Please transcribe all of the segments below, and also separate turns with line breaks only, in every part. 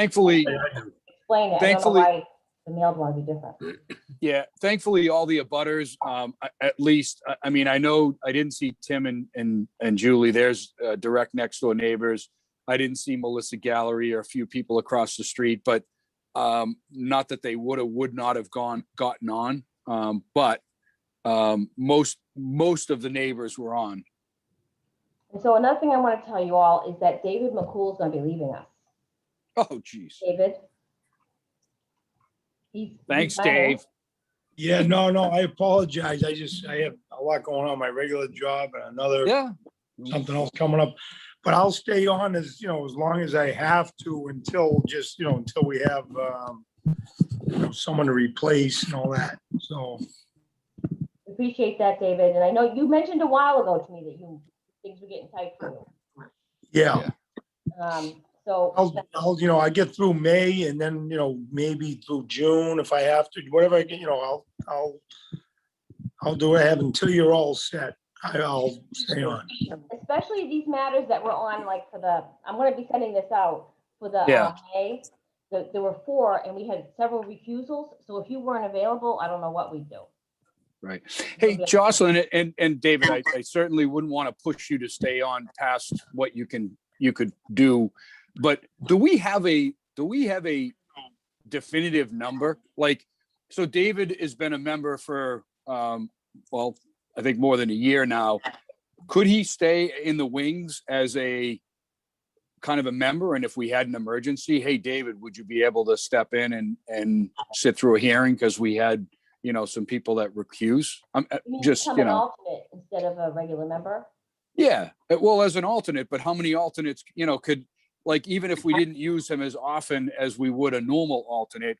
thankfully,
explain it. I don't know
Thankfully-
why the mailed one would be different.
yeah, thankfully, all the abutters, um, a- at least, I, I mean, I know, I didn't see Tim and, and, and Julie, there's, uh, direct next door neighbors. I didn't see Melissa Gallery or a few people across the street, but, um, not that they would have, would not have gone, gotten on. Um, but, um, most, most of the neighbors were on.
And so another thing I want to tell you all is that David McCool's going to be leaving us.
Oh, geez.
David? He's- he's
Thanks,
running.
Dave.
Yeah, no, no, I apologize. I just, I have a lot going on, my regular job and another,
Yeah,
something else coming up. But I'll stay on as, you know, as long as I have to until just, you know, until we have, um, you know, someone to replace and all that. So,
Appreciate that, David. And I know you mentioned a while ago to me that you, things were getting tight for you.
yeah.
Um, So.
Oh.
I'll, I'll, you know, I get through May and then, you know, maybe through June if I have to, whatever I can, you know, I'll, I'll, I'll do what I have until you're all set. I- I'll stay on.
especially these matters that were on, like for the, I'm gonna be sending this out for the,
Yeah.
uh, May. There, there were four and we had several recusals, so if you weren't available, I don't know what we'd do.
right. Hey,
Okay.
Jocelyn and, and David, I, I certainly wouldn't want to push you to stay on past what you can, you could do. But do we have a, do we have a definitive number? Like, so David has been a member for, um, well, I think more than a year now. Could he stay in the wings as a kind of a member? And if we had an emergency, hey, David, would you be able to step in and, and sit through a hearing? Because we had, you know, some people that recuse. I'm, uh,
You mean
Just,
become
you
an
know.
alternate Instead of a regular member.
yeah, uh, well, as an alternate, but how many alternates, you know, could, like, even if we didn't use him as often as we would a normal alternate?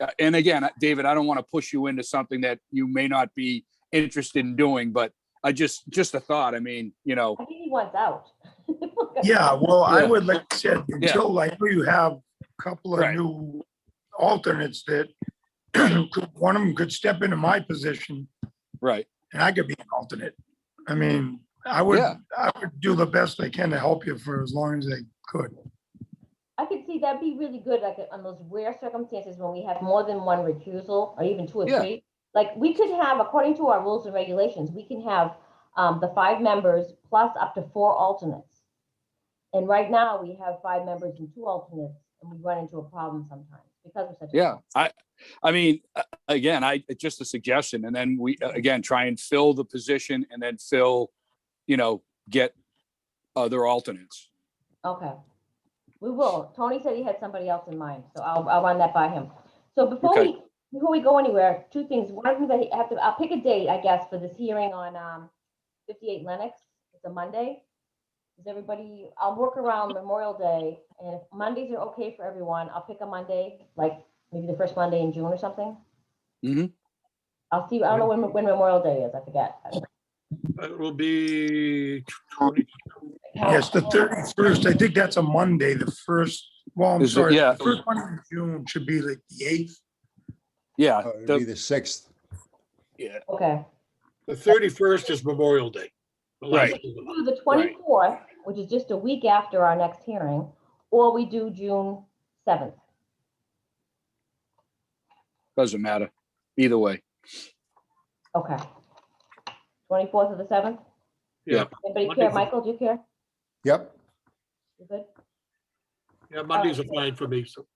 uh, And again, uh, David, I don't want to push you into something that you may not be interested in doing, but I just, just a thought. I mean, you know,
I think he wants out.
Yeah, well, I
Yeah.
would, like I said, until I know you have a couple of
Right.
new alternates that could- one of them could step into my position
right,
and I could be an alternate. I mean, I would,
Yeah.
I would do the best I can to help you for as long as I could.
I could see that'd be really good, like on those rare circumstances when we have more than one recusal or even two or
Yeah.
three. Like we could have, according to our rules and regulations, we can have um, the five members plus up to four alternates. And right now we have five members and two alternates and we run into a problem sometimes because of such. a-
yeah. I, I mean, a- again, I, it's just a suggestion. And then we, uh, again, try and fill the position and then fill, you know, get other alternates.
Okay. We will. Tony said he had somebody else in mind, so I'll, I'll run that by him. So before
Okay.
we, before we go anywhere, two things. One of them that I have to, I'll pick a date, I guess, for this hearing on, um, fifty-eight Lennox. It's a Monday. Is everybody, I'll work around Memorial Day, and if Mondays are okay for everyone, I'll pick a Monday, like maybe the first Monday in June or something.
Mhm.
I'll see, I don't know when, when Memorial Day is, I forget.
That will be,
Yes, the thirty-first, I think that's a Monday, the first, well, I'm
Is it-
sorry,
yeah.
the first Monday in June should be like the eighth.
Yeah,
Oh, It'd
the-
be the sixth.
Okay.
the 31st is Memorial Day. The
Right.
last of the month.
do the
Right.
twenty-fourth, which is just a week after our next hearing, or we do June seventh.
doesn't matter. Either way.
Okay. Twenty-fourth of the seventh?
Yeah.
Anybody care?
Wonderful.
Michael, do you care?
Yep.
You good?
Yeah, Mondays are fine for me. So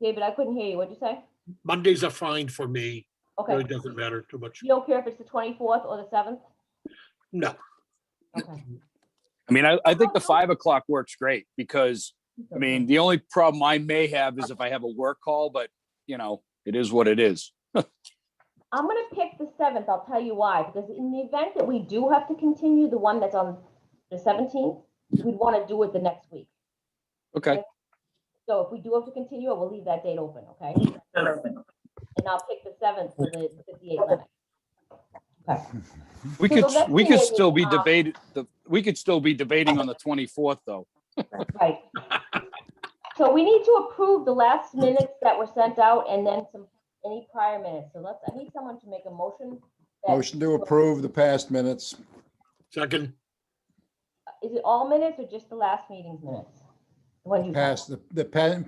David, I couldn't hear you. What'd you say?
Mondays are fine for me. Really
Okay.
doesn't matter too much.
You don't care if it's the twenty-fourth or the seventh?
No.
Okay.
I mean, I,
Oh,
I think the five o'clock works great because, I mean, the only problem I may have is if I have a work call, but you know, it is what it is.
I'm gonna pick the seventh. I'll tell you why, because in the event that we do have to continue the one that's on the seventeenth, we'd wanna do it the next week.
Okay,
So if we do have to continue it, we'll leave that date open, okay? And I'll pick the seventh for the fifty-eight limit. Okay.
we
So
could,
the next
we
thing
could
is,
still be
uh,
debated, the, we could still be debating on the twenty-fourth though.
Right. So we need to approve the last minutes that were sent out and then some, any prior minutes. So let's, I need someone to make a motion. that-
Motion to approve the past minutes.
Second,
Is it all minutes or just the last meeting's minutes? The ones you.
past, the, the pa-